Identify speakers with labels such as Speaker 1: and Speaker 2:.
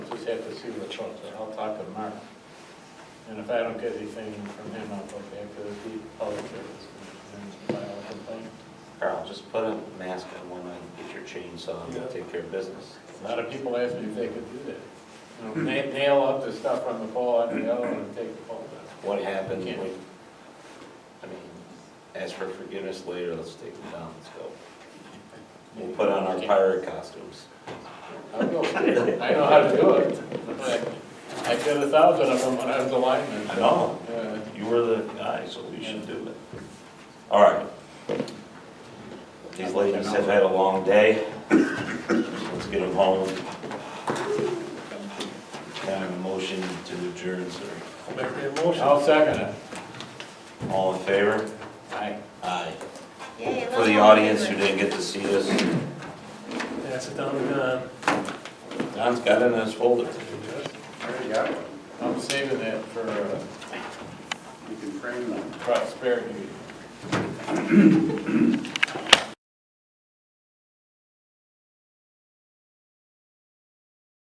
Speaker 1: have to see which ones, are. I'll talk to Mark. And if I don't get anything from him, I'll go back to the public service commission and file a complaint.
Speaker 2: Carl, just put a mask on when I get your chainsaw and
Speaker 1: Yeah.
Speaker 2: take care of business.
Speaker 1: A lot of people ask me if they could do that. You know, na- Nail up the stuff on the pole on the other one and take the pole down.
Speaker 2: What happened,
Speaker 1: Yeah.
Speaker 2: when- I mean, ask for forgiveness later, let's take them down, let's go. We'll put on our pirate costumes.
Speaker 1: I'll go. I know how to do it. I- I did a thousand of them when I was a lineman.
Speaker 2: I know.
Speaker 1: Yeah.
Speaker 2: You were the guy, so we should do it. All right. These ladies have had a long day. Let's get them home. Kind of a motion to adjourn, sir.
Speaker 1: I'll second it.
Speaker 2: All in favor?
Speaker 1: Aye.
Speaker 2: Aye.
Speaker 3: Yay, I
Speaker 2: For
Speaker 3: love
Speaker 2: the
Speaker 3: all
Speaker 2: audience who
Speaker 3: favorites.
Speaker 2: didn't get to see this,
Speaker 4: Pass it down to Don.
Speaker 2: Don's got it in his folder.
Speaker 1: I'm saving that for uh,
Speaker 5: You can frame them.
Speaker 1: prosperity.